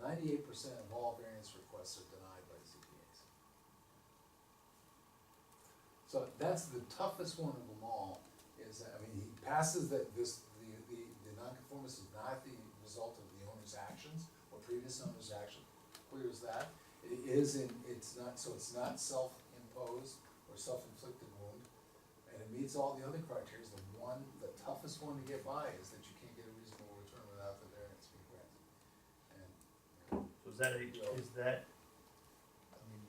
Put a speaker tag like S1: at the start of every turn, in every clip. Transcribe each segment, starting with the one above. S1: Ninety-eight percent of all variance requests are denied by ZBAs. So that's the toughest one of them all, is, that, I mean, he passes that, this, the, the, the nonconformance is not the result of the owner's actions or previous owner's action, clear as that. It is in, it's not, so it's not self-imposed or self-inflicted wound, and it meets all the other criteria. The one, the toughest one to get by is that you can't get a reasonable return without the variance being granted. And, you know,
S2: So is that, a- is that, I mean,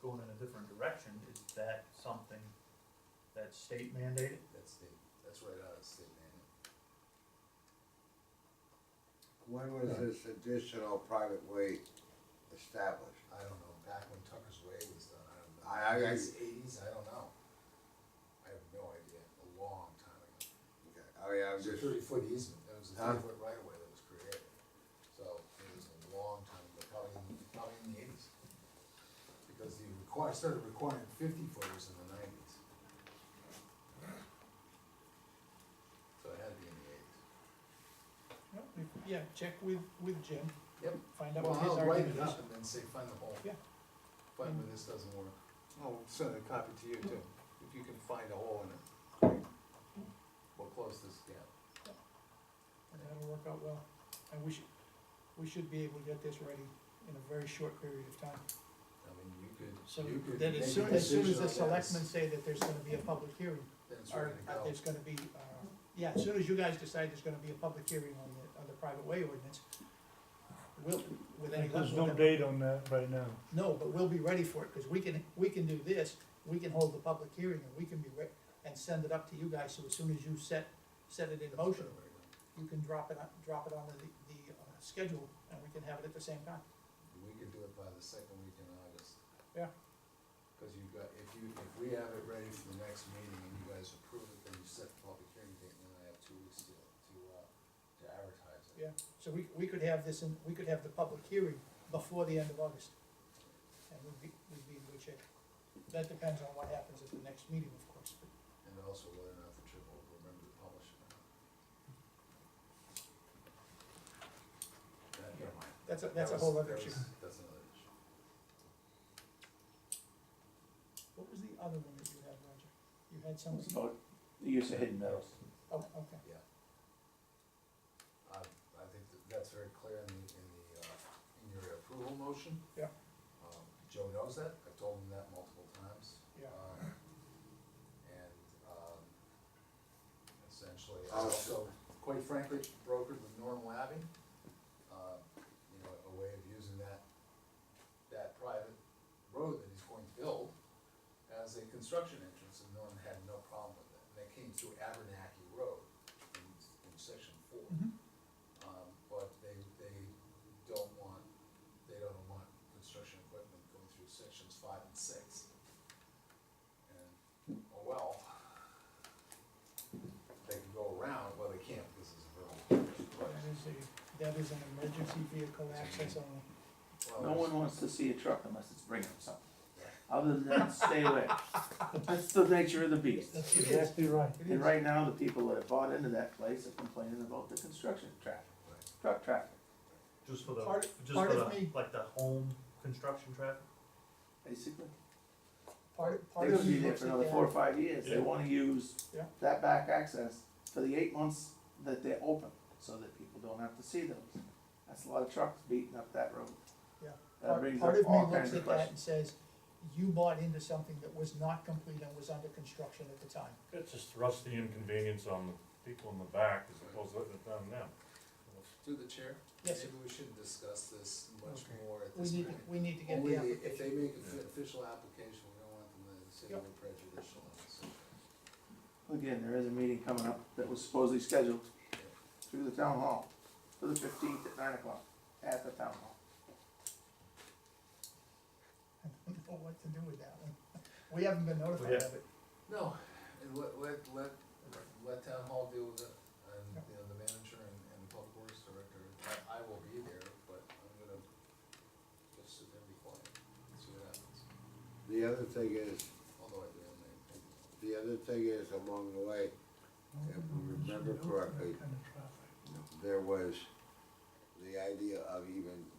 S2: going in a different direction, is that something that's state mandated?
S1: that's the, that's right out of the state manual.
S3: When was this additional private way established?
S1: I don't know, back when Tucker's Way was done, I don't know.
S3: I- I- I-
S1: Eighties, I don't know. I have no idea, a long time ago.
S3: Okay, I mean, I'm
S1: It was a
S3: just,
S1: thirty foot easement, that was a
S3: Huh?
S1: thirty foot right of way that was created. So it was a long time ago, probably, in- probably in the eighties. Because you require, started requiring fifty footers in the nineties. So it had to be in the eighties.
S4: No, we- Yeah, check with, with Jim,
S1: Yep.
S4: find out
S1: Well,
S4: what his
S1: I'll write
S4: argument
S1: it
S4: is.
S1: up and then say, find the hole.
S4: Yeah. Mm-hmm.
S1: Find where this doesn't work. I'll send a copy to you too, if you can find a hole in it.
S4: Mm-hmm.
S1: We'll close this gap.
S4: That'll work out well, and we should, we should be able to get this ready in a very short period of time.
S1: I mean, you could,
S4: So
S1: you could.
S4: that
S1: make a
S4: as soon, as soon as
S1: decision
S4: the
S1: on this,
S4: selectmen say that there's gonna be a public hearing,
S1: Then it's
S4: or
S1: ready to go.
S4: there's gonna be, uh, yeah, as soon as you guys decide there's gonna be a public hearing on the, on the private way ordinance, we'll, with any luck.
S5: There's no
S4: we'll-
S5: date on that right now.
S4: No, but we'll be ready for it, cause we can, we can do this, we can hold the public hearing, and we can be re- and send it up to you guys, so as soon as you set, set it in motion, you can drop it, on drop it on the, the, uh, schedule, and we can have it at the same time.
S1: We could do it by the second week in August.
S4: Yeah.
S1: Cause you got, if you, if we have it ready for the next meeting and you guys approve it, then you set the public hearing date, and then I have two weeks to, to, uh, to advertise it.
S4: Yeah. So we, we could have this, in we could have the public hearing before the end of August, and we'd be, we'd be in good shape. That depends on what happens at the next meeting, of course, but
S1: And also whether or not the trip will remember to publish it. or not. That, never mind.
S4: that's a, that's a
S1: That
S4: whole
S1: was-
S4: other
S1: that
S4: issue.
S1: was- That's another issue.
S4: What was the other one that you had, Roger? You had some,
S6: About the use of hidden metals.
S4: oh, okay,
S1: I, I think that that's very clear in the, in the, uh, in your approval motion.
S4: Yeah.
S1: Um, Joe knows that, I've told him that multiple times.
S4: Yeah.
S1: Um, And, um, essentially, I
S3: I'll-
S1: also, quite frankly, brokered with Norm Labby, uh, you know, a way of using that, that private road that he's going to build as a construction entrance, and Norm had no problem with that. And that came through Abernathy Road in, in section four.
S4: Mhm.
S1: Um, but they, they don't want, they don't want construction equipment going through sections five and six. And, oh well, they can go around, well, they can't, because it's a road.
S4: that is a, that is an emergency vehicle access only.
S1: Well,
S6: No one
S1: there's-
S6: wants to see a truck unless it's bringing something. Other than that, stay away. That's the nature of the beast.
S4: That's- it is,
S5: Exactly right.
S4: it
S6: And
S4: is.
S6: right now, the people that have bought into that place are complaining about the construction traffic,
S1: Right.
S6: truck traffic.
S2: Just for the,
S4: Part-
S2: just for
S4: part of
S2: the,
S4: me-
S2: like the home construction traffic?
S6: Basically,
S4: Part,
S6: they're
S4: part
S6: gonna
S4: of
S6: be
S4: me
S6: there
S4: looks
S6: for
S4: at
S6: another four or
S4: that,
S6: five years, they
S2: Yeah.
S6: wanna use
S4: Oh, Yeah.
S6: that back access for the eight months that they're open, so that people don't have to see those. That's a lot of trucks beating up that road.
S4: Yeah.
S6: That
S4: part,
S6: brings
S4: part
S6: up
S4: of
S6: all
S4: me looks
S6: kinds
S4: at
S6: of
S4: that
S6: questions.
S4: and says, you bought into something that was not complete and was under construction at the time.
S7: That just thrusts the inconvenience on the people in the back as opposed to letting it down them.
S1: Through the chair?
S4: Yes, sir.
S1: Maybe we should discuss this much
S4: Okay.
S1: more at
S4: We
S1: this
S4: need,
S1: point.
S4: we need to get
S1: Only
S4: the
S1: the- if they
S4: application.
S1: make an official application, we don't want them to say
S4: Yep.
S1: we're prejudicial. on this.
S6: Again, there is a meeting coming up that was supposedly scheduled through the town hall for the fifteenth at nine o'clock at the town hall.
S4: I don't know what to do with that one. We haven't been notified
S2: yeah.
S4: of it.
S1: No, and let, let, let, let town hall deal with it, and,
S4: Yep.
S1: you know, the manager and, and the public works director, I, I will be there, but I'm gonna just sit there and be quiet, and see what happens,
S3: the other thing is,
S1: although I do have my opinion.
S3: the other thing is along the way, if we remember correctly, there was the idea of even